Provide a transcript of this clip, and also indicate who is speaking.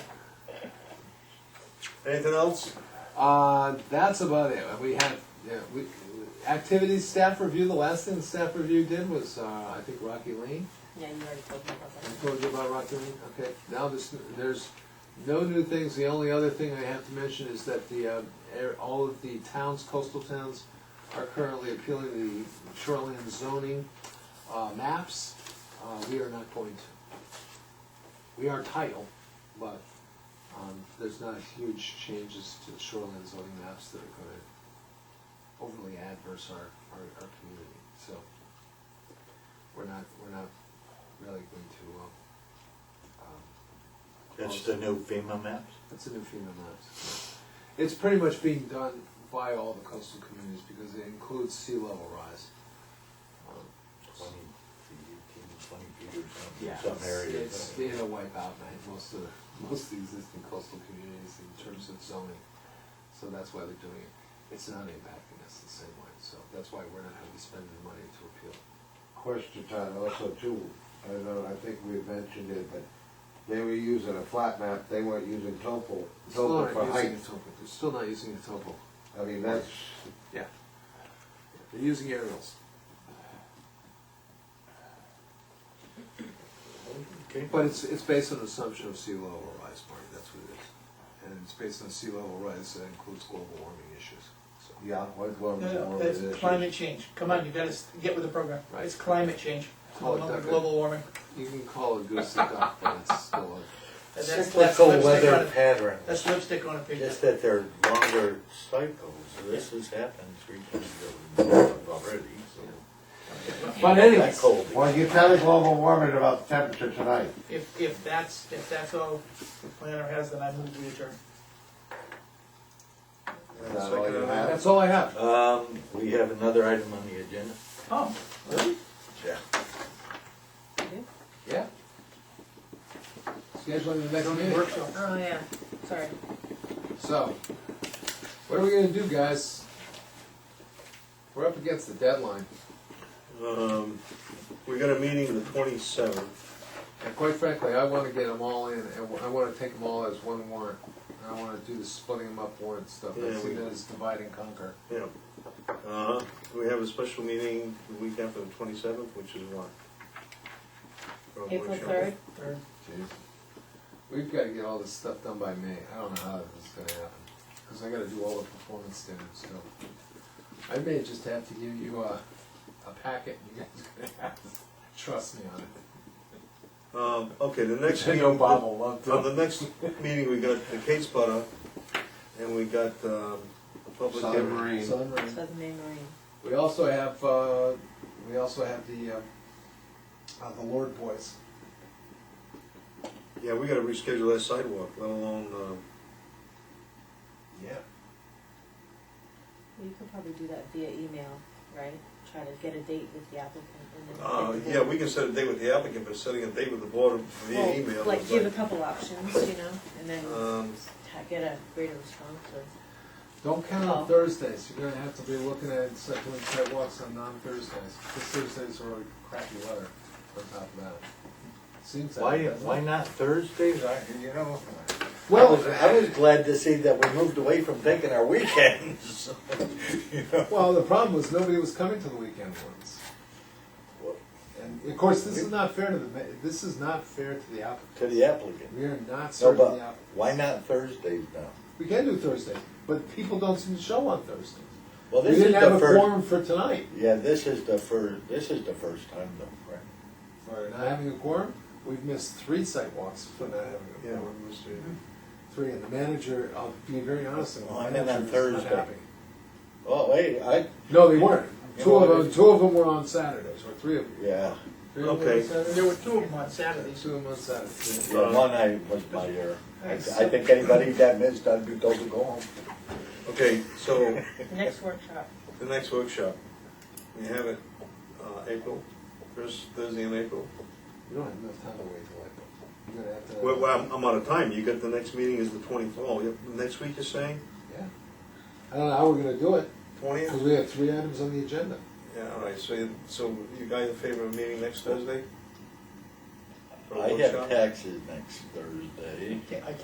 Speaker 1: Anything else?
Speaker 2: Uh, that's about it. We have yeah, we, activities staff review. The last thing the staff review did was uh, I think Rocky Lane.
Speaker 3: Yeah, you already told me about
Speaker 2: I
Speaker 3: that.
Speaker 2: told you about Rocky Lane. Okay. Now this, there's no new things. The only other thing I have to mention is that the uh, air, all of the towns, coastal towns, are currently appealing the shoreline zoning uh, maps. Uh, we are not going to. We are title, but um, there's not huge changes to the shoreline zoning maps that are going to overly adverse our, our, our community. So we're not we're not really going to. Um, um,
Speaker 1: That's the new FEMA maps?
Speaker 2: that's a new FEMA maps. It's pretty much being done by all the coastal communities because it includes sea level rise. Um,
Speaker 1: Twenty feet, 18, 20 feet or something,
Speaker 2: Yeah,
Speaker 1: some
Speaker 2: it's-
Speaker 1: areas.
Speaker 2: It's, it'll wipe out like, most of, most of the existing coastal communities in terms of zoning, so that's why they're doing it. It's not impacting us the same way, so that's why we're not gonna be spending money to appeal.
Speaker 4: Question time also too, I don't know, I think we mentioned it, but they were using a flat map, they weren't using topo,
Speaker 2: Still
Speaker 4: topo
Speaker 2: not
Speaker 4: for height.
Speaker 2: using the topo, they're still not using the topo.
Speaker 4: I mean, that's,
Speaker 2: Yeah. They're using aerials.
Speaker 1: Okay.
Speaker 2: But it's, it's based on an assumption of sea level rise, Marty, that's what it is. And it's based on sea level rise, that includes global warming issues, so.
Speaker 4: yeah, what, what,
Speaker 5: No, no,
Speaker 4: what
Speaker 5: that's
Speaker 4: was it?
Speaker 5: climate change. Come on, you gotta s- get with the program.
Speaker 2: Right.
Speaker 5: It's climate change.
Speaker 2: Call it
Speaker 5: No longer
Speaker 2: that,
Speaker 5: global warming.
Speaker 2: You can call it goose and duck, but it's still a,
Speaker 5: And that's- that's
Speaker 1: Cyclical
Speaker 5: lipstick on
Speaker 1: weather
Speaker 5: a-
Speaker 1: pattern,
Speaker 5: That's lipstick on a pig.
Speaker 1: just that they're longer cycles, this has happened three times already, so.
Speaker 2: but
Speaker 1: That
Speaker 2: anyways,
Speaker 1: cold.
Speaker 4: Well, you tell the global warming about the temperature tonight.
Speaker 5: If, if that's, if that's all the planner has, then I move to adjourn.
Speaker 4: Is that all you have?
Speaker 6: uh,
Speaker 2: that's all I have.
Speaker 1: Um, we have another item on the agenda.
Speaker 5: Oh, really?
Speaker 1: Yeah.
Speaker 2: Yeah. Scheduling the next
Speaker 5: Zoning
Speaker 2: meeting,
Speaker 5: workshop.
Speaker 3: Oh, yeah, sorry.
Speaker 2: so, what are we gonna do, guys? We're up against the deadline,
Speaker 6: Um, we got a meeting the twenty-seventh.
Speaker 2: and quite frankly, I wanna get them all in, and I wanna take them all as one warrant. And I wanna do the splitting them up warrant stuff, I
Speaker 6: Yeah,
Speaker 2: see
Speaker 6: we-
Speaker 2: that as divide and conquer.
Speaker 6: Yeah. Uh, we have a special meeting the week after the twenty-seventh, which is what? Or
Speaker 3: April
Speaker 6: workshop?
Speaker 3: third,
Speaker 5: Third.
Speaker 2: Jeez. We've gotta get all this stuff done by May, I don't know how this is gonna happen, cause I gotta do all the performance standards still. I may just have to give you a, a packet, and you guys are gonna have to trust me on it.
Speaker 6: Um, okay, the next
Speaker 2: I
Speaker 6: meeting,
Speaker 2: know Bob
Speaker 6: on
Speaker 2: will love
Speaker 6: the
Speaker 2: to.
Speaker 6: next meeting, we got the Kate's butter, and we got, um, the public.
Speaker 4: Southern Marine.
Speaker 2: Sunrise.
Speaker 3: Southern Maine Marine.
Speaker 2: We also have, uh, we also have the, uh, uh, the Lord Boys.
Speaker 6: Yeah, we gotta reschedule that sidewalk, let alone, um,
Speaker 2: Yeah.
Speaker 3: You could probably do that via email, right? Try to get a date with the applicant and then.
Speaker 6: uh, yeah, we can set a date with the applicant, but setting a date with the board via
Speaker 3: Well,
Speaker 6: email.
Speaker 3: Like,
Speaker 6: is
Speaker 3: give a
Speaker 6: like-
Speaker 3: couple options, you know, and then
Speaker 6: Um,
Speaker 3: ta- get a greater response or.
Speaker 2: Don't count on
Speaker 3: Oh.
Speaker 2: Thursdays, you're gonna have to be looking at, set- doing sidewalks on non-Thursdays, because Thursdays are a crappy weather on top of that. Seems that.
Speaker 1: Why,
Speaker 2: doesn't it?
Speaker 1: why not Thursdays? I, you know, I
Speaker 2: Well-
Speaker 1: was, I was glad to see that we moved away from taking our weekends. You know,
Speaker 2: Well, the problem was nobody was coming to the weekend ones. And of course, this is not fair to the, ma- this is not fair to the applicant.
Speaker 1: To the applicant.
Speaker 2: We are not
Speaker 1: No,
Speaker 2: serving the
Speaker 1: but
Speaker 2: applicant.
Speaker 1: why not Thursdays now?
Speaker 2: We can do Thursday, but people don't seem to show on Thursdays.
Speaker 1: Well,
Speaker 2: We
Speaker 1: this is
Speaker 2: didn't have
Speaker 1: the
Speaker 2: a
Speaker 1: first,
Speaker 2: quorum for tonight.
Speaker 1: yeah, this is the first, this is the first time though, right?
Speaker 2: For not having a quorum, we've missed three sidewalks for not having a
Speaker 6: yeah,
Speaker 2: quorum.
Speaker 6: we're missing.
Speaker 2: Three, and the manager, I'll be very honest, and the
Speaker 1: Well, I meant on
Speaker 2: manager was not
Speaker 1: Thursday.
Speaker 2: happy.
Speaker 1: Oh, wait, I,
Speaker 2: No, they weren't.
Speaker 1: You
Speaker 2: Two
Speaker 1: know,
Speaker 2: of
Speaker 1: I
Speaker 2: them,
Speaker 1: just-
Speaker 2: two of them were on Saturdays, or three of them.
Speaker 1: yeah,
Speaker 2: Three of them were on
Speaker 6: Okay.
Speaker 2: Saturdays?
Speaker 5: There were two of them on Saturdays.
Speaker 2: Two of them on Saturdays.
Speaker 1: the
Speaker 6: Uh,
Speaker 1: one I was my error. I I think anybody that missed, I'd be told to go home.
Speaker 6: Okay, so,
Speaker 3: The next workshop,
Speaker 6: The next workshop, we have it, uh, April, first Thursday in April.
Speaker 2: You don't have enough time to wait till April. You're gonna have to.
Speaker 6: Well, well, I'm, I'm out of time, you got the next meeting is the twenty-fourth, oh, you- next week you're saying,
Speaker 2: Yeah. I don't know how we're gonna do it,
Speaker 6: twentieth?
Speaker 2: because we have three items on the agenda.
Speaker 6: Yeah, all right, so, you- so you guys in favor of meeting next Thursday? For a
Speaker 1: I have
Speaker 6: workshop?
Speaker 1: taxes next Thursday.
Speaker 5: Can't- I can't